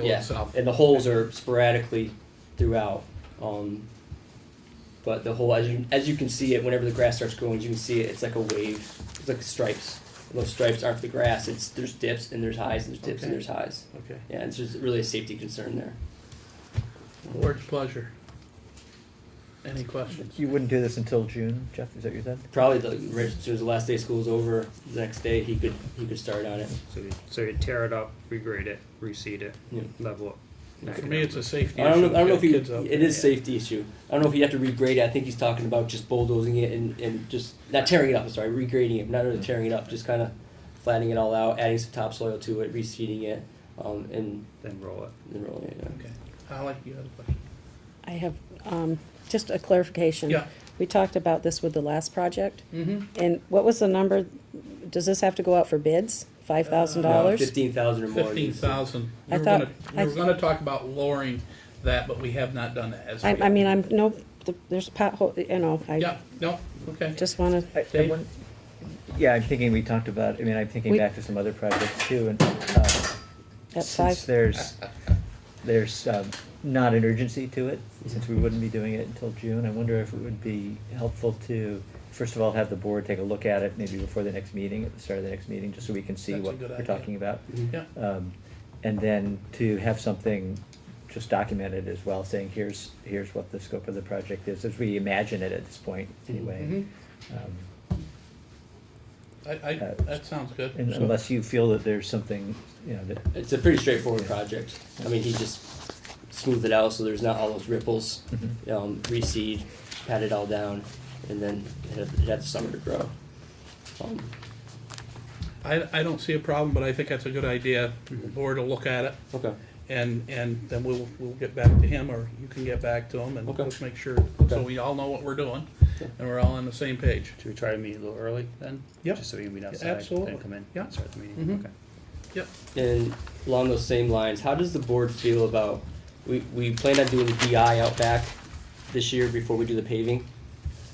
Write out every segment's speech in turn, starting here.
Yeah, fills up. and the holes are sporadically throughout. Um, but the hole, as you as you can see it, whenever the grass starts growing, you can see it. It's like a wave. It's like stripes. And those stripes aren't the grass. It's there's dips and there's highs and there's dips and Okay. there's highs. Okay, Yeah, it's just really a safety concern there. board's pleasure. Any questions? You wouldn't do this until June, Jeff, is that what you said? Probably the right as soon as the last day of school's over, the next day he could he could start on it. So you, so you tear it up, regrade it, reseed it, Yeah. level it. back For it me, up. it's a safety issue. I don't know. I don't know Got if he. kids out It there. is safety issue. I don't know if you have to regrade it. I think he's talking about just bulldozing it and, and just not tearing it up. Sorry, regrading it, not really Mm. tearing it up. Just kind of flattening it all out, adding some topsoil to it, reseeding it, um, and then roll it. then rolling it. Yeah. Okay, Holly, you had a question? I have um, just a clarification. Yeah. We talked about this with the last project, Mm-hmm. and what was the number, does this have to go out for bids? Uh, Five thousand dollars? Fifteen thousand or more. Fifteen thousand. I We were thought- gonna, we I were gonna talk about lowering that, but we have not done that as of I, I yet. mean, I'm, no, the- there's pothole, you know, I Yeah, no, okay. just wanna, I- I Dave? wouldn't- Yeah, I'm thinking we talked about, I mean, I'm thinking We- back to some other projects too, and, uh, at since five, there's, there's, um, not an urgency to it, Mm-hmm. since we wouldn't be doing it until June, I wonder if it would be helpful to, first of all, have the board take a look at it, maybe before the next meeting, at the start of the next meeting, just so we can see That's a what good we're idea. talking about. Mhm. Yeah, Um, and then to have something just documented as well, saying here's, here's what the scope of the project is, as we imagine it at this point, anyway. Mhm. Um, I, I, Uh, that sounds good. and So- Unless you feel that there's something, you know, that, It's a pretty straightforward project. I mean, he just smoothed it out so there's not all those ripples. mm-hmm. Um, reseed, pat it all down, and then it had, it had the summer to grow. Um, I, I don't see a problem, but I think that's a good idea, The board will look at it, okay. and, and then we'll, we'll get back to him, or you can get back to him, and Okay. let's make sure, Okay. so we all know what we're doing, Okay. and we're all on the same page. Should we try to meet a little early then? Yep. Just so we can meet Yeah, outside absolutely. and come in Yeah. and start the meeting. Mhm. Okay. Yep, And along those same lines, how does the board feel about, we, we plan on doing the DI out back this year before we do the paving?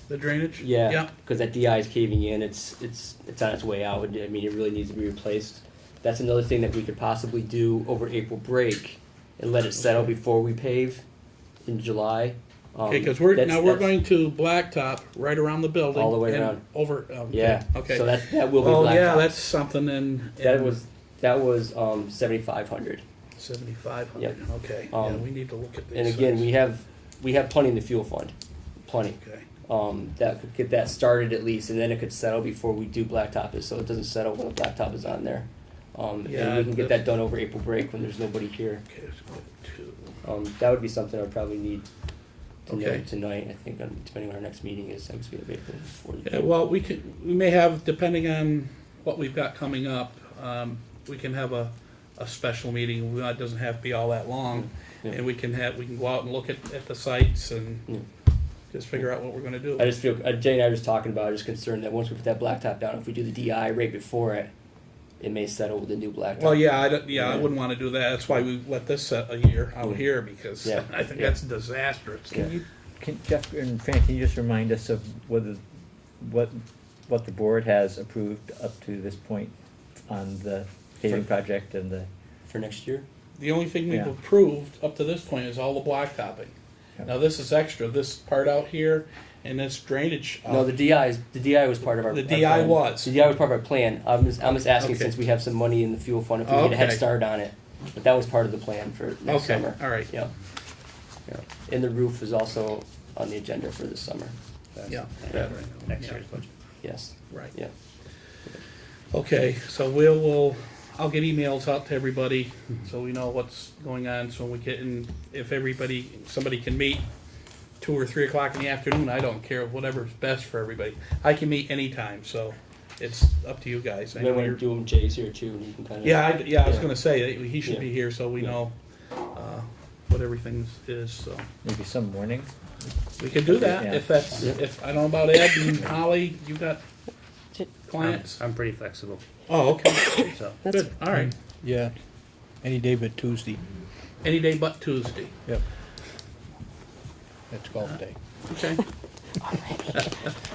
the drainage? Yeah. Yeah, Cause that DI is caving in, it's, it's, it's on its way out, I mean, it really needs to be replaced. That's another thing that we could possibly do over April break and let it settle before we pave in July. Um, okay, because we're, that's- now we're that's going to blacktop right around the building. All the way and around. Over, um, Yeah, okay. so that, that will be Oh, yeah, blacktop, that's something in. that was, that was, um, seventy-five hundred. Seventy-five Yep. hundred, okay, yeah, Um, we need to look at these. And again, things. we have, we have plenty in the fuel fund, plenty. Okay, um, that could get that started at least, and then it could settle before we do blacktop is, so it doesn't settle when blacktop is on there. Um, and Yeah, we can get that's- that done over April break when there's nobody here. okay, let's go to, Um, that would be something I would probably need to know Okay. tonight, I think, um, depending on our next meeting is, I guess we have April before. the- yeah, well, we could, we may have, depending on what we've got coming up, um, we can have a, a special meeting, We- it doesn't have to be all that long. Yeah. And we can have, we can go out and look at, at the sites and just figure out what we're gonna do. I just feel, uh, Jay and I were just talking about, I was concerned that once we put that blacktop down, if we do the DI right before it, it may settle with the new blacktop. Well, yeah, I don't, yeah, I wouldn't wanna do that, that's why we let this set a year out here, because Yeah. I think Yeah. that's disastrous. Yeah. can you, can Jeff and Fran, can you just remind us of whether, what, what the board has approved up to this point on the paving project and the, For next year? The only thing we've Yeah. approved up to this point is all the blacktopping. Yeah. Now, this is extra, this part out here and this drainage. uh, out No, the DI is, the DI was part of our. The our DI plan. was. The DI was part of our plan. I'm just, I'm just asking Okay. since we have some money in the fuel fund, if we get a head Okay. start on it. But that was part of the plan for next Okay, summer. all right. Yeah. Yeah. And the roof is also on the agenda for this summer. That's Yeah. that Yeah. Next Yeah. year's budget. Yes, Right. yeah. Okay, so we'll, we'll, I'll get emails out to everybody, so we know what's going on, so we get in, if everybody, somebody can meet two or three o'clock in the afternoon, I don't care, whatever's best for everybody. I can meet anytime, so it's up to you guys. I Maybe know when you you're- do them, Jay's here too, and you can kind of. Yeah, I, yeah, I was Yeah. gonna say, that he should be Yeah. here, so we Yeah. know, uh, what everything is, so. maybe some warning? We could do that, Yeah. if that's, Yeah. if, I don't know about Ed and Holly, you got I'm, Um, clients? I'm pretty flexible, Oh, okay, so. that's, good, all right. Yeah, any day but Tuesday, Any day but Tuesday. that's golf day. Okay.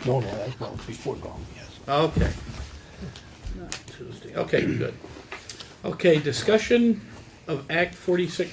No, no, that's golf, before golf, yes. Okay. Not Tuesday, okay, good. Okay, discussion of Act forty-six